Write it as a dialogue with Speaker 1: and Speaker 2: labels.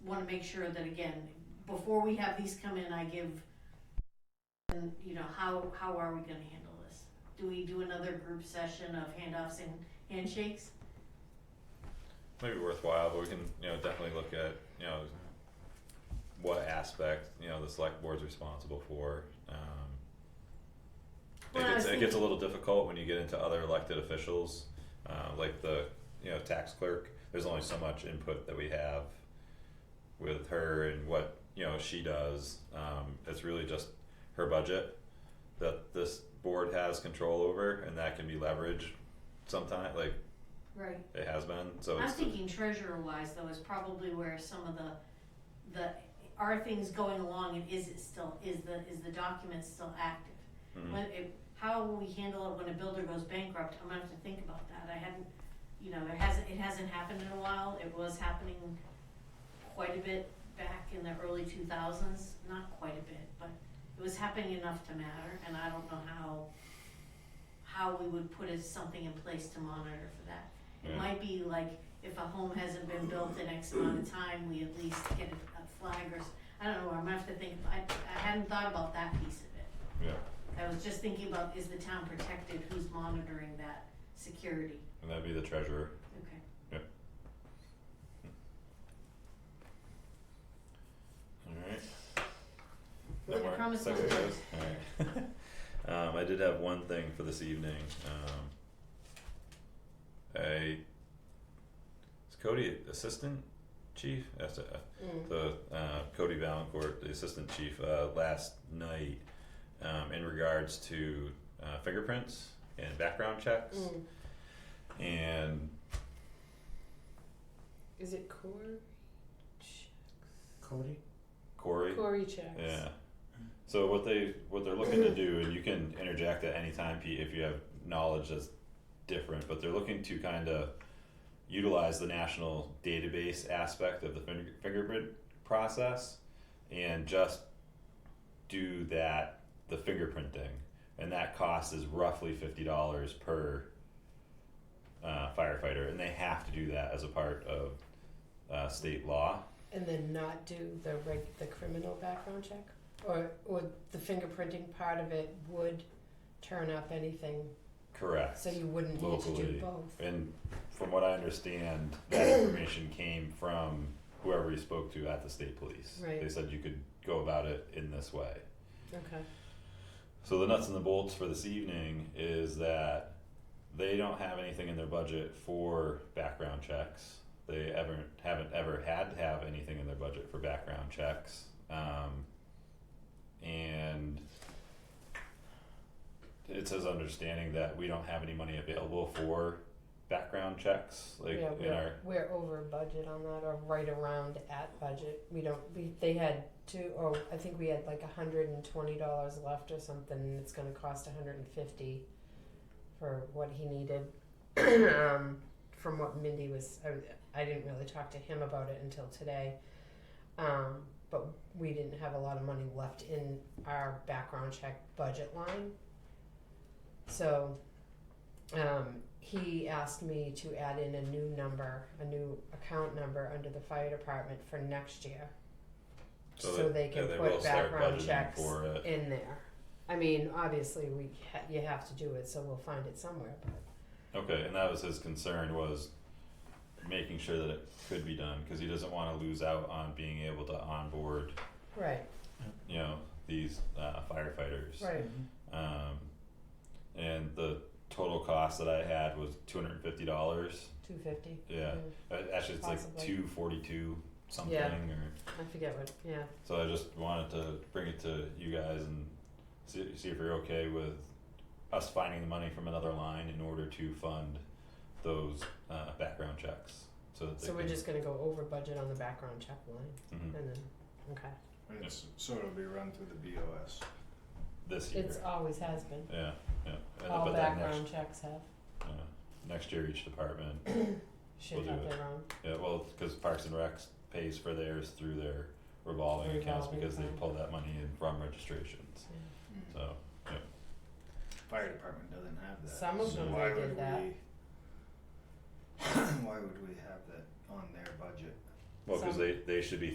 Speaker 1: wanna make sure that again, before we have these come in, I give, and, you know, how, how are we gonna handle this? Do we do another group session of handoffs and handshakes?
Speaker 2: Might be worthwhile, but we can, you know, definitely look at, you know, what aspect, you know, the select board's responsible for, um.
Speaker 1: Well,
Speaker 2: It
Speaker 1: I
Speaker 2: gets,
Speaker 1: was
Speaker 2: it gets a little difficult when you get into other elected officials, uh, like the, you know, tax clerk, there's only so much input that we have with her and what, you know, she does, um, it's really just her budget that this board has control over, and that can be leveraged sometime, like
Speaker 1: Right.
Speaker 2: it has been, so
Speaker 1: I'm
Speaker 2: it's.
Speaker 1: thinking treasurer wise though is probably where some of the, the, are things going along and is it still, is the, is the document still active?
Speaker 2: Mhm.
Speaker 1: When, if, how will we handle it when a builder goes bankrupt? I'm gonna have to think about that. I hadn't, you know, it hasn't, it hasn't happened in a while. It was happening quite a bit back in the early two thousands, not quite a bit, but it was happening enough to matter and I don't know how, how we would put it- something in place to monitor for that. It
Speaker 2: Yeah.
Speaker 1: might be like, if a home hasn't been built in X amount of time, we at least get a- a flag or, s- I don't know, I'm gonna have to think, I, I hadn't thought about that piece of it.
Speaker 2: Yeah,
Speaker 1: I was just thinking about, is the town protected, who's monitoring that security?
Speaker 2: and that'd be the treasurer.
Speaker 1: Okay.
Speaker 2: Alright.
Speaker 1: Look, I promise I'll-
Speaker 2: Alright. Um, I did have one thing for this evening, um. I. Is Cody assistant chief? That's a, the, uh, Cody Valancourt, the assistant chief, uh, last night, um, in regards to, uh, fingerprints and background checks.
Speaker 3: Mm.
Speaker 2: And
Speaker 3: Is it Corey? Ch-
Speaker 4: Cody?
Speaker 2: Corey.
Speaker 3: Corey checks.
Speaker 2: Yeah. So what they what they're looking to do, and you can interject at any time, Pete, if you have knowledge that's different, but they're looking to kind of utilize the national database aspect of the finger, fingerprint process, and just do that the fingerprinting, and that cost is roughly fifty dollars per uh, firefighter, and they have to do that as a part of uh, state law.
Speaker 3: And then not do the reg- the criminal background check, or or the fingerprinting part of it would turn up anything,
Speaker 2: Correct.
Speaker 3: so you wouldn't need to
Speaker 2: Locally.
Speaker 3: do both.
Speaker 2: And from what I understand, that information came from whoever you spoke to at the state police.
Speaker 3: Right.
Speaker 2: They said you could go about it in this way.
Speaker 3: Okay.
Speaker 2: So the nuts and the bolts for this evening is that they don't have anything in their budget for background checks. They ever haven't ever had to have anything in their budget for background checks. Um, and it says understanding that we don't have any money available for background checks, like
Speaker 3: yeah,
Speaker 2: in
Speaker 3: we're,
Speaker 2: our
Speaker 3: we're over budget on that, or right around at budget. We don't. We, they had two, or I think we had like a hundred and twenty dollars left or something. and It's going to cost a hundred and fifty for what he needed. um, from what Mindy was, I, I didn't really talk to him about it until today. Um, but we didn't have a lot of money left in our background check budget line. So um, he asked me to add in a new number, a new account number under the fire department for next year. So, they,
Speaker 2: yeah,
Speaker 3: can
Speaker 2: they will
Speaker 3: put
Speaker 2: start
Speaker 3: background
Speaker 2: budgeting
Speaker 3: checks
Speaker 2: for it.
Speaker 3: in there. I mean, obviously, we ha- you have to do it, so we'll find it somewhere. But
Speaker 2: Okay, and that was his concern was making sure that it could be done because he doesn't want to lose out on being able to onboard,
Speaker 3: right,
Speaker 2: you know, these uh, firefighters.
Speaker 3: right.
Speaker 2: Um, and the total cost that I had was two hundred and fifty dollars.
Speaker 3: Two fifty.
Speaker 2: Yeah, Uh, actually, it's like
Speaker 3: Mm-hmm. Possibly.
Speaker 2: two forty-two something.
Speaker 3: Yeah.
Speaker 2: Or
Speaker 3: I forget what. Yeah.
Speaker 2: so I just wanted to bring it to you guys and see, see if you're okay with us finding the money from another line in order to fund those uh, background checks. So, that they
Speaker 3: So we're
Speaker 2: can-
Speaker 3: just gonna go over budget on the background check line,
Speaker 2: Mhm.
Speaker 3: and then okay.
Speaker 4: It's, so it'll be run through the BOS.
Speaker 2: this year.
Speaker 3: It's always has been.
Speaker 2: yeah, yeah. And
Speaker 3: All
Speaker 2: but then next,
Speaker 3: background checks have
Speaker 2: yeah, next year, each department.
Speaker 3: should
Speaker 2: We'll do
Speaker 3: have
Speaker 2: it.
Speaker 3: their own.
Speaker 2: Yeah, well, because Parks and Recs pays for theirs through their revolving accounts
Speaker 3: Revolving
Speaker 2: because they
Speaker 3: fund.
Speaker 2: pull that money in from registrations.
Speaker 3: Yeah.
Speaker 2: So
Speaker 4: Fire department doesn't have that.
Speaker 3: Some of
Speaker 4: so
Speaker 3: them
Speaker 4: why
Speaker 3: they did
Speaker 4: would
Speaker 3: that.
Speaker 4: we- Why would we have that on their budget?
Speaker 2: well, because
Speaker 3: Some-
Speaker 2: they they should be